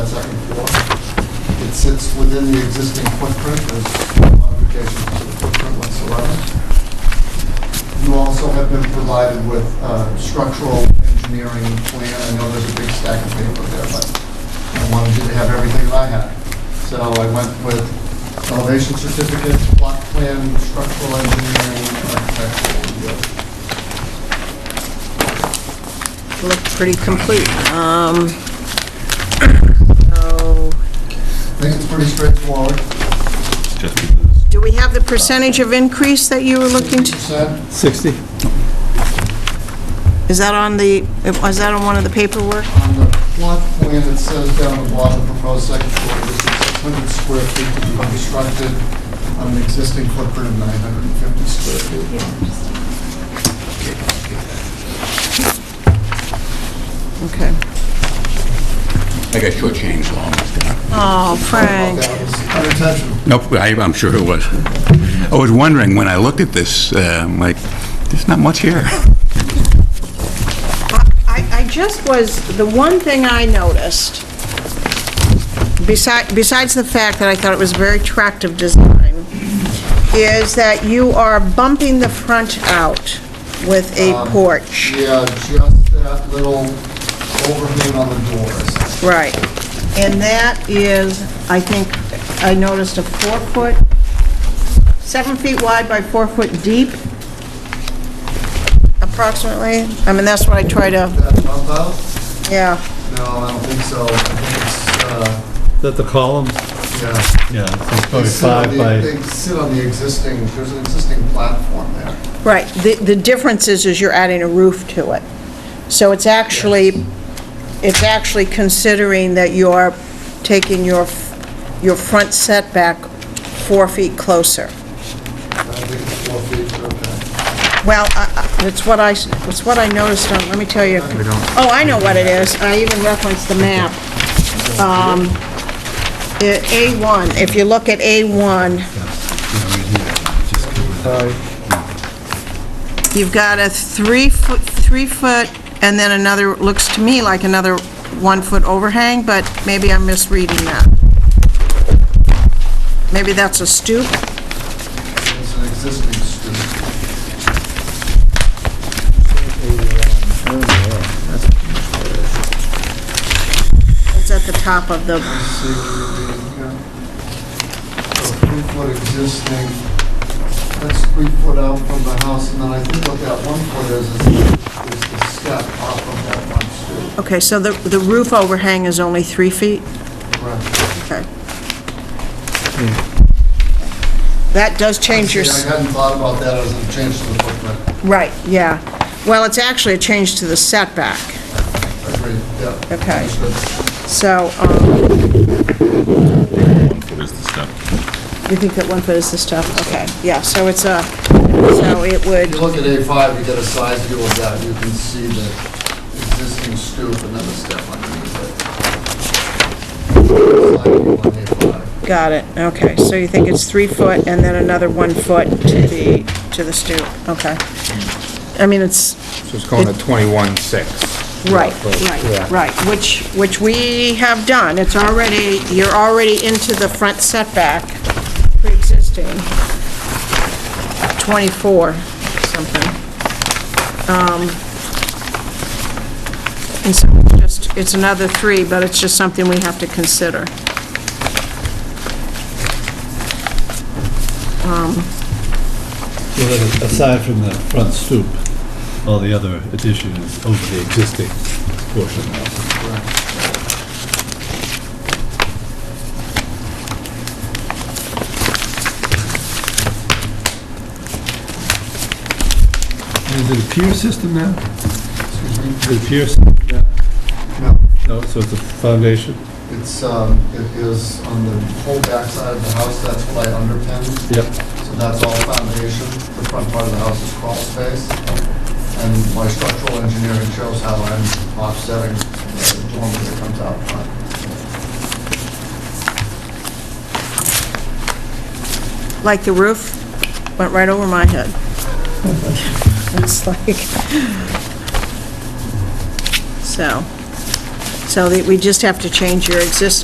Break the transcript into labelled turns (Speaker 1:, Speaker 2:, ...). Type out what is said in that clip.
Speaker 1: the second floor. It sits within the existing footprint, there's no modifications to the footprint whatsoever. You also have been provided with uh, structural engineering plan. I know there's a big stack of paper there, but I wanted you to have everything that I had. So I went with elevation certificate, plot plan, structural engineering, and architectural review.
Speaker 2: Looked pretty complete. Um, So,
Speaker 1: I think it's pretty straightforward.
Speaker 3: just because.
Speaker 2: do we have the percentage of increase that you were looking to?
Speaker 1: 60%.
Speaker 4: 60.
Speaker 2: Is that on the, is that on one of the paperwork?
Speaker 1: On the plot plan, it says down the bottom, proposed second floor, this is 600 square feet to be constructed on an existing footprint of 950 square feet.
Speaker 2: Okay.
Speaker 3: I got shortchanged long.
Speaker 2: Oh, Frank.
Speaker 1: That was unintentional.
Speaker 3: Nope, I- I'm sure it was. I was wondering, when I looked at this, uh, I'm like, there's not much here.
Speaker 2: I, I just was, the one thing I noticed, besides, besides the fact that I thought it was a very attractive design, is that you are bumping the front out with a porch.
Speaker 1: Yeah, just that little overhang on the doors.
Speaker 2: Right. And that is, I think, I noticed a four-foot, seven feet wide by four foot deep, approximately. I mean, that's what I try to,
Speaker 1: That bump out?
Speaker 2: yeah.
Speaker 1: No, I don't think so. I think it's, uh,
Speaker 4: That the column?
Speaker 1: yeah.
Speaker 4: Yeah, it's
Speaker 1: They
Speaker 4: probably
Speaker 1: sit on
Speaker 4: five
Speaker 1: the-
Speaker 4: by,
Speaker 1: They sit on the existing, there's an existing platform there.
Speaker 2: Right. The, the difference is, is you're adding a roof to it. So it's actually, it's actually considering that you're taking your, f- your front setback four feet closer.
Speaker 1: I think it's four feet, okay.
Speaker 2: Well, I- I- it's what I, s- it's what I noticed on, let me tell you. Oh, I know what it is. I even referenced the map. Um, i- A1, if you look at A1, you've got a three-foot, three-foot, and then another, looks to me like another one-foot overhang, but maybe I'm misreading that. Maybe that's a stoop?
Speaker 1: It's an existing street.
Speaker 2: It's at the top of the,
Speaker 1: See, yeah. So three foot existing, that's three foot out from the house, and then I think what that one foot is, is is the step off of that one street.
Speaker 2: okay, so the the roof overhang is only three feet?
Speaker 1: Correct.
Speaker 2: Okay. That does change your,
Speaker 1: See, I hadn't thought about that as a change to the footprint.
Speaker 2: right, yeah. Well, it's actually a change to the setback,
Speaker 1: Agreed, yeah.
Speaker 2: Okay.
Speaker 1: Understood.
Speaker 2: so, um,
Speaker 3: What is the step?
Speaker 2: you think that one foot is the stuff, okay, yeah, so it's a, so it
Speaker 1: If you
Speaker 2: would,
Speaker 1: look at A5, you get a side view of that, you can see the existing stoop and then the step underneath it. Side view on A5.
Speaker 2: got it, okay, so you think it's three foot and then another one foot to the, to the stoop, okay. I mean, it's,
Speaker 5: So it's calling it 21.6.
Speaker 2: Right,
Speaker 5: Yeah.
Speaker 2: right, right, which, which we have done. It's already, you're already into the front setback, pre-existing, 24 something. Um, And so it's just, it's another three, but it's just something we have to consider.
Speaker 4: so that aside from the front stoop, all the other addition is over the existing portion of the house. And Is it a pier system now?
Speaker 1: Excuse me?
Speaker 4: Is it a pier system?
Speaker 1: No.
Speaker 4: No, so it's a foundation?
Speaker 1: It's, um, it is on the whole backside of the house, that's what I underpinned.
Speaker 4: Yep.
Speaker 1: So that's all foundation. The front part of the house is crawl space. And my structural engineering shows how I'm offsetting the dormer that comes out front.
Speaker 2: Like the roof went right over my head. It's like, so, So that we just have to change your exist,